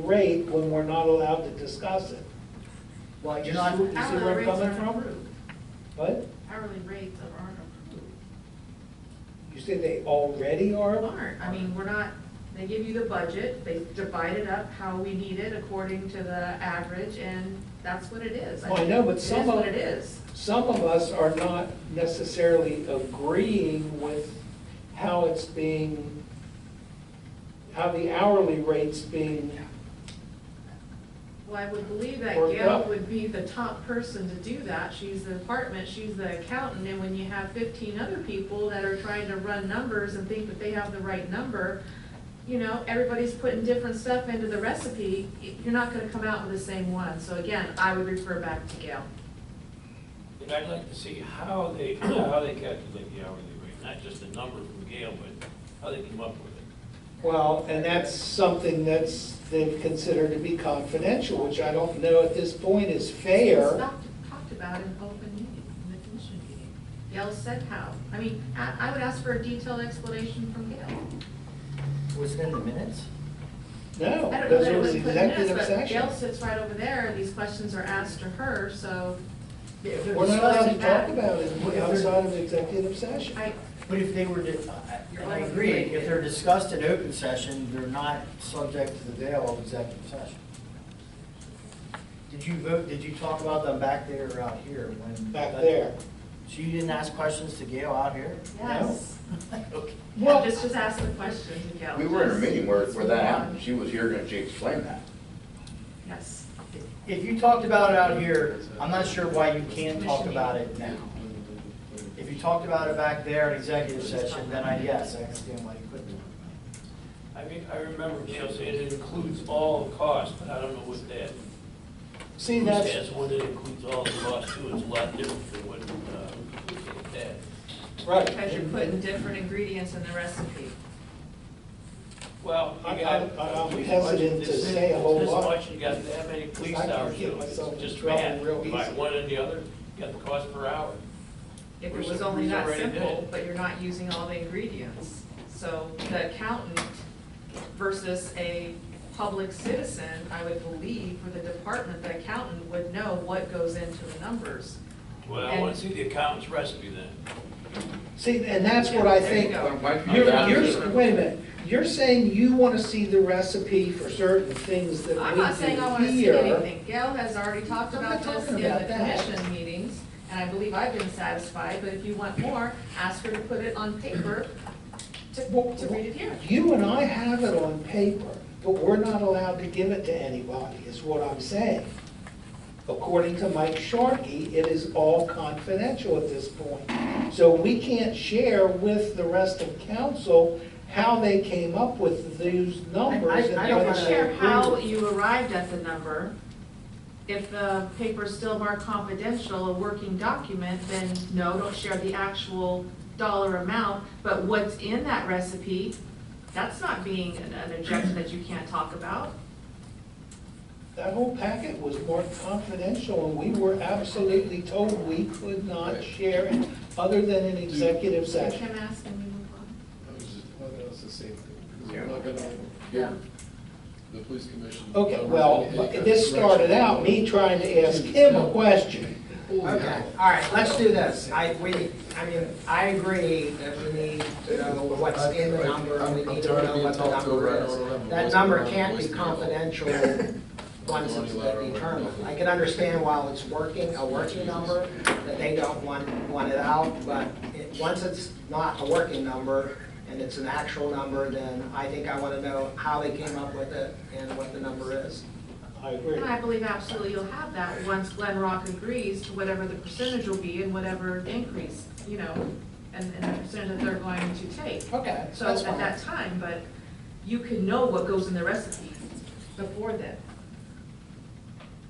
rate when we're not allowed to discuss it. Well, You you're see not, you see where I'm Hourly rates coming are from? approved. What? Hourly rates are- aren't approved. You say they already are? Aren't, I mean, we're not, they give you the budget, they divide it up how we need it according to the average, and that's what it is. Well, Oh, I know, but some of- It is what it is. Some of us are not necessarily agreeing with how it's being, how the hourly rate's being, Well, I would believe that Or Gail what? would be the top person to do that. She's the department, she's the accountant, and when you have fifteen other people that are trying to run numbers and think that they have the right number, you know, everybody's putting different stuff into the recipe, you're not gonna come out with the same one. So again, I would refer back to Gail. And I'd like to see how they, how they calculate the hourly rate, not just the number from Gail, but how they come up with it. well, and that's something that's, they consider to be confidential, which I don't know at this point is It's fair. not talked about in open meeting, in the commission meeting. Gail said how. I mean, I, I would ask for a detailed explanation from Gail. was it in the minutes? No, I don't know Oh, those that it are was the put in this, executive but session. Gail sits right over there, and these questions are asked to her, so We're not allowed to talk about If it they're- outside of executive session. I, But if they were, to- I- I I agree, if they're discussed in open session, they're not subject to the veil of executive session. Did you vote, did you talk about them back there or out here when? Back there. So you didn't ask questions to Gail out here? yes. Okay. Well- Just, just ask the question to Gail. We were in a meeting where, where that happened, Just- she was here and she explained that. Yes. If you talked about it out here, I'm not sure why you can't talk about it now. If you talked about it back there in executive session, then I, yes, I understand why you couldn't. talk about I mean, I remember Gail saying it includes all costs, but I don't know what that. See, that's, Says when it includes all the costs too, it's a lot different than what, uh, we said that. right. Because you're and- putting different ingredients in the recipe. Well, I- you got. I- I'm hesitant to say a whole This lot. much, you got that many police I can hours, get you know, it's myself in just trouble bad, real by easy. one and the other, you got the cost per hour. If Which it was the only reason that why they did simple, it. but you're not using all the ingredients. So the accountant versus a public citizen, I would believe, for the department, the accountant would know what goes into the numbers. Well, I wanna see the accountant's recipe then. See, and that's what I There you think, go. Why- why can't you're, that- you're, wait a minute, you're saying you want to see the recipe for certain things that we do here. I'm not saying I want to see anything. Gail has already talked I'm about not this in talking about the that. commission meetings, and I believe I've been satisfied, but if you want more, ask her to put it on paper to, Well, to read it here. You and I have it on paper, but we're not allowed to give it to anybody, is what I'm saying. According to Mike Sharkey, it is all confidential at this point. So we can't share with the rest of council how they came up with those numbers. and I You don't can whether they share agree how with e- it. you arrived at the number. If the paper's still marked confidential, a working document, then no, don't share the actual dollar amount. But what's in that recipe, that's not being an- an objection that you can't talk about. That whole packet was marked confidential, and we were absolutely told we could not share it other than in executive session. Can I ask and we move on? I was just, well, that was the same thing, because Yeah. we're not gonna Yeah. give the police commission. Okay, numbers well, any- any kind of this started direction. out me trying to ask him a question. Okay, all right, let's do this. I, we, I mean, I agree that we need to know what's in the number, and we I'm- I'm need to tired of know being what the talked over. I number don't is. remember That what's number going on, can't be what's going on. confidential once it's Money determined. laundering. I can understand while it's working, a working number, that they don't want, want it out, but it, once it's not a working number, and it's an actual number, then I think I wanna know how they came up with it and what the number is. I agree. And I believe absolutely you'll have that once Glen Rock agrees to whatever the percentage will be and whatever the increase, you know, and, and the percentage that they're going to take. Okay, So at that time, but you can know what goes in the recipe before then.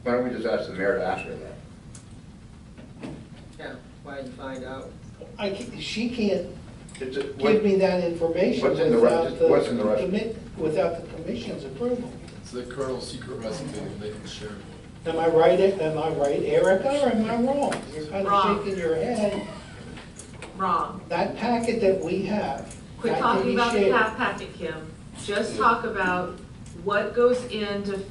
Why don't we just ask the mayor to ask her that? Yeah, why don't you find out? I, ca- she can't It's a- what- give me that information What's in the rest- without the. what's in the rest? commi- Without the commission's approval. It's the colonel's secret recipe, and they can share it. Am I right, am I right, Erica, or am I wrong? You're kind Wrong. of shaking your head. Wrong. That packet that we have. Quit that can talking be about the shared. half packet, Kim. Just talk about what goes into